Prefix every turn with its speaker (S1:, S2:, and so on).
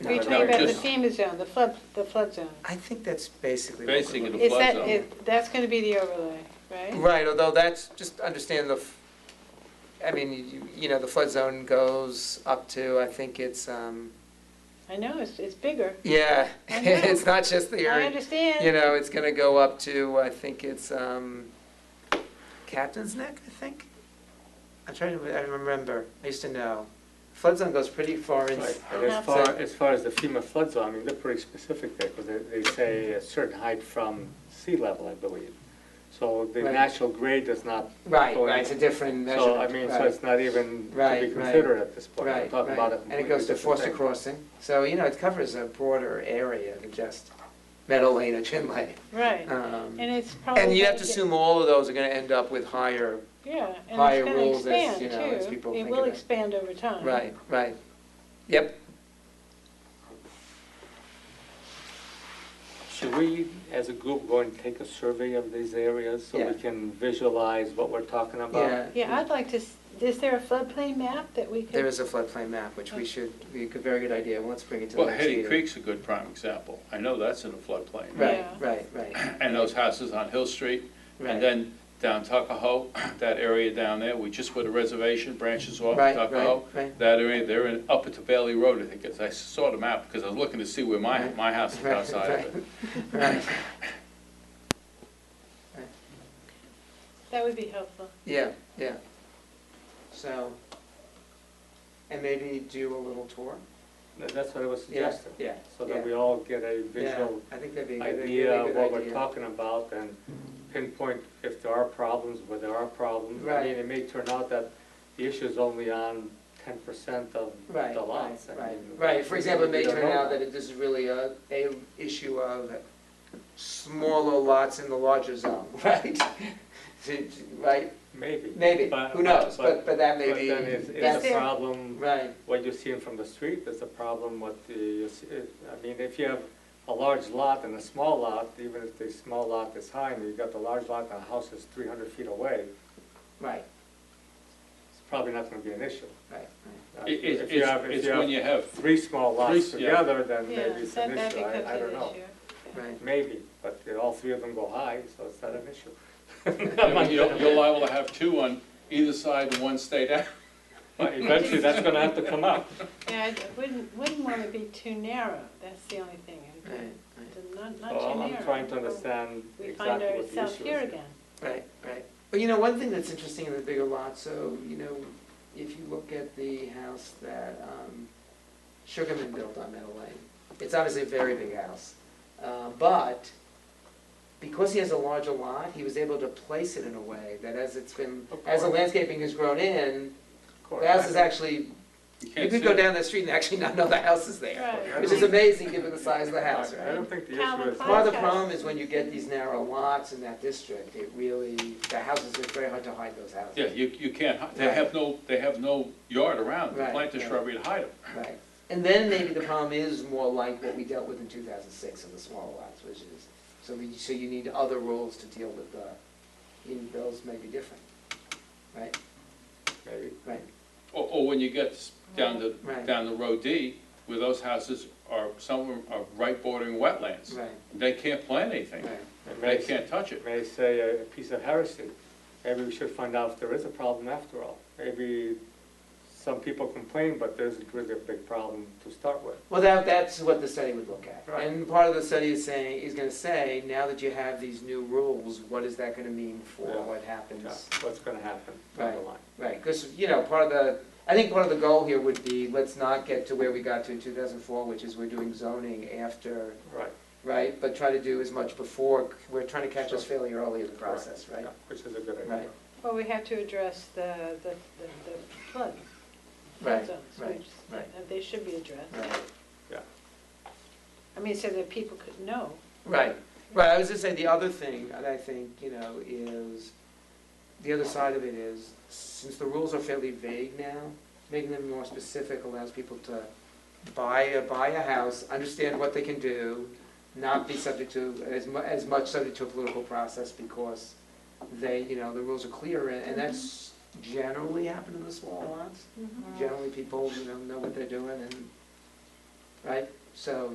S1: You're talking about the FEMA zone, the flood, the flood zone.
S2: I think that's basically. what we're
S3: Basically,
S2: looking-
S3: the
S1: Is
S3: flood
S1: that,
S3: zone.
S1: is- that's going to be the overlay, right?
S2: Right, although that's, just understand the, f- I mean, you- you know, the flood zone goes up to, I think it's, um,
S1: I know, it's, it's bigger.
S2: yeah,
S1: I know.
S2: it's not just the
S1: I
S2: area.
S1: understand.
S2: You know, it's going to go up to, I think it's um, Captain's Neck, I think? I'm trying to, I remember, I used to know. Flood zone goes pretty far in.
S4: Right, but
S1: Yeah.
S4: As far, as far as the FEMA flood zone, I mean, they're pretty specific there, because they, they say a certain height from sea level, I believe. So the
S2: Right.
S4: natural grade does not.
S2: Right,
S4: go in.
S2: right, it's a different measurement.
S4: So, I mean, so
S2: right.
S4: it's not even to
S2: Right,
S4: be
S2: right.
S4: considered at this point, we're
S2: Right,
S4: talking about
S2: right,
S4: it.
S2: and it goes to Foster Crossing, so, you know, it covers a broader area than just Meadow Lane or Chin Lane.
S1: Right.
S2: Um,
S1: And it's probably.
S2: And you have to
S1: gonna get-
S2: assume all of those are gonna end up with higher,
S1: Yeah,
S2: higher
S1: and it's
S2: rules as,
S1: going to
S2: you know, as
S1: expand
S2: people
S1: too. It
S2: think
S1: will
S2: about it.
S1: expand over time.
S2: right, right, yep.
S4: Should we, as a group, go and take a survey of these areas so
S2: Yeah.
S4: we can visualize what we're talking about?
S1: Yeah, I'd like to, s- is there a floodplain map that we could?
S2: There is a floodplain map, which we should, we could, very good idea, well, let's bring it to the
S3: Well,
S2: next
S3: Hetty
S2: meeting.
S3: Creek's a good prime example. I know that's in a floodplain.
S1: Yeah.
S2: Right, right, right,
S3: And those houses on Hill Street, and
S2: right,
S3: then down Tuckahoe, that area down there, we just put a reservation, branches off
S2: right, right,
S3: Tuckahoe.
S2: right,
S3: That area, they're in, up at the Bailey Road, I think, it's I saw the map, because I was looking to see where my,
S2: Right.
S3: my house is
S2: Right,
S3: outside of
S2: right.
S3: it.
S2: right,
S1: That would be helpful.
S2: yeah, yeah. So, and maybe do a little tour?
S4: That- That's what I was
S2: Yeah,
S4: suggesting.
S2: yeah,
S4: So
S2: yeah.
S4: that we all get a
S2: yeah,
S4: visual
S2: I think that'd be a good, a
S4: idea
S2: really
S4: of
S2: good
S4: what we're
S2: idea.
S4: talking about and pinpoint if there are problems, where there are problems. I
S2: Right.
S4: mean, it may turn out that the issue is only on ten percent of
S2: Right,
S4: the
S2: right,
S4: lots. I
S2: right,
S4: mean,
S2: right, for example, it may
S4: we don't
S2: turn
S4: know
S2: out that it- this is really a, a issue of smaller lots in the larger zone, right? To- to- Right,
S4: Maybe.
S2: maybe,
S4: But-
S2: who knows, but, but that may
S4: But then
S2: be,
S4: is,
S1: that's
S4: is
S1: it.
S4: a problem,
S2: right,
S4: what you're seeing from the street, is a problem what the, you see- it- I mean, if you have a large lot and a small lot, even if the small lot is high and you've got the large lot and the house is three hundred feet away,
S2: right,
S4: it's probably not gonna be an issue.
S2: right,
S4: Uh,
S3: It- it-
S4: if you have- if
S3: It's, it's
S4: you have
S3: when you have,
S4: three small lots
S3: Three, yeah.
S4: together, then
S1: Yeah,
S4: maybe it's an
S1: that- that
S4: issue,
S1: becomes
S4: I, I
S1: an
S4: don't know.
S1: issue.
S2: right,
S4: Maybe, but uh, all three of them go high, so it's not an issue.
S3: you're you're liable to have two on either side and one stayed out.
S4: But eventually, that's gonna have to come up.
S1: Yeah, I wouldn't, wouldn't want to be too narrow, that's the only thing. I'd
S2: right,
S1: do. Not,
S4: So
S1: not too
S4: I'm
S1: narrow.
S4: I'm trying to understand
S1: We find
S4: exactly what the
S1: ourselves
S4: issue
S1: here
S4: is.
S1: again.
S2: right, right. But you know, one thing that's interesting in the bigger lot, so, you know, if you look at the house that, um, Sugarman built on Meadow Lane. It's obviously a very big house, uh, but because he has a larger lot, he was able to place it in a way that as it's been,
S4: Of
S2: as the
S4: course.
S2: landscaping has grown in,
S4: Of
S2: the house is
S4: course.
S2: actually, you
S3: can't
S2: could
S3: see
S2: go
S3: it.
S2: down the street and actually not know the house is there,
S1: Right.
S2: which is amazing given the size of the house,
S4: I
S2: right?
S4: don't think the
S1: Calvin
S4: issue is.
S2: Part of the
S1: House.
S2: problem is when you get these narrow lots in that district, it really, the houses, it's very hard to hide those houses.
S3: Yeah, you, you can't, hi- they
S2: Right.
S3: have no, they have no yard around, them.
S2: Right,
S3: plant the
S2: right.
S3: shrubbery to hide them.
S2: Right, and then maybe the problem is more like what we dealt with in two thousand six in the smaller lots, which is, so we, so you need other rules to deal with the, even those may be different, right,
S4: Maybe.
S2: right,
S3: Or, or when you get s- down to,
S2: Right.
S3: down to row D, where those houses are, some of them are right bordering wetlands.
S2: right,
S3: They can't plant anything,
S2: right.
S4: It
S3: they
S4: may,
S3: can't touch it.
S4: it may say a a piece of heresy. Maybe we should find out if there is a problem after all. Maybe some people complain, but there isn't really a big problem to start with.
S2: Well, that, that's what the study would look at,
S4: Right.
S2: and part of the study is saying, is gonna say, now that you have these new rules, what is that gonna mean
S4: Yeah.
S2: for what happens?
S4: Yeah, What's gonna happen down the
S2: Right.
S4: line.
S2: Right, because, you know, part of the, I think part of the goal here would be, let's not get to where we got to in two thousand four, which is we're doing zoning after
S4: Right.
S2: right? But try to do as much before, we're trying to catch this failure early in the
S4: Correct.
S2: process, right?
S4: Yeah, Which is a good idea.
S2: Right.
S1: Well, we have to address the, the, the- the flood,
S2: Right,
S1: flood zones,
S2: right,
S1: which,
S2: right.
S1: uh, they should be addressed.
S2: Right,
S1: I mean, so that people could know.
S2: Right, right, I was gonna say, the other thing that I think, you know, is, the other side of it is, since the rules are fairly vague now, making them more specific allows people to buy, a buy a house, understand what they can do, not be subject to, as mu, as much subject to a political process because they, you know, the rules are clear, and and that's generally happened Mm-hmm.
S1: Mm.
S2: in the small lots. generally people, you know, know what they're doing and, right? So